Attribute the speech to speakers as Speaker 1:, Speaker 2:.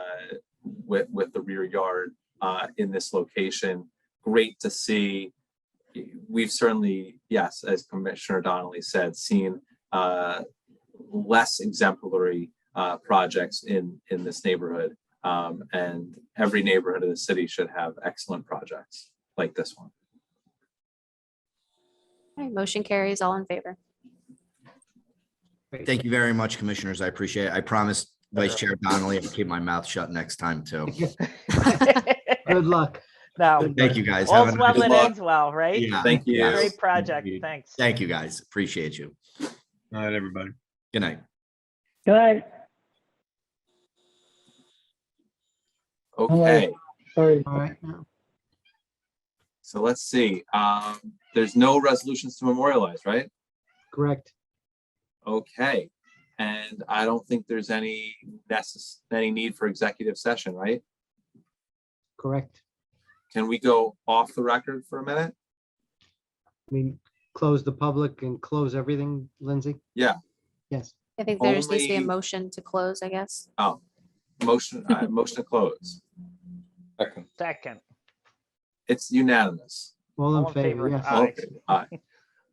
Speaker 1: with, with the rear yard uh, in this location. Great to see. We've certainly, yes, as Commissioner Donnelly said, seen uh, less exemplary uh, projects in, in this neighborhood. Um, And every neighborhood of the city should have excellent projects like this one.
Speaker 2: Okay, Motion carries all in favor.
Speaker 3: Great.
Speaker 4: Thank you very much, commissioners. I appreciate it. I promise Vice Chair Donnelly, I'll keep my mouth shut next time too.
Speaker 3: Good luck.
Speaker 5: No,
Speaker 4: Thank you, guys. Have a
Speaker 5: all's well
Speaker 4: nice
Speaker 5: that
Speaker 4: day.
Speaker 5: ends well, right?
Speaker 4: Yeah,
Speaker 1: Thank you.
Speaker 4: yes.
Speaker 5: Great project,
Speaker 4: Indeed.
Speaker 5: thanks.
Speaker 4: Thank you, guys. Appreciate you.
Speaker 6: Night, everybody.
Speaker 4: Good night.
Speaker 7: Good.
Speaker 1: Okay.
Speaker 7: Sorry.
Speaker 3: All right. now.
Speaker 1: So let's see, um, there's no resolutions to memorialize, right?
Speaker 3: Correct.
Speaker 1: Okay, and I don't think there's any necess, any need for executive session, right?
Speaker 3: Correct.
Speaker 1: Can we go off the record for a minute?
Speaker 3: I mean, close the public and close everything, Lindsay?
Speaker 1: Yeah.
Speaker 3: Yes.
Speaker 2: I think there just needs to be a
Speaker 1: Only-
Speaker 2: motion to close, I guess.
Speaker 1: Oh, motion, uh, motion to close.
Speaker 5: Second,
Speaker 1: It's unanimous.
Speaker 3: All
Speaker 5: All
Speaker 3: in favor, yes.
Speaker 5: Aye.
Speaker 1: Okay, aye.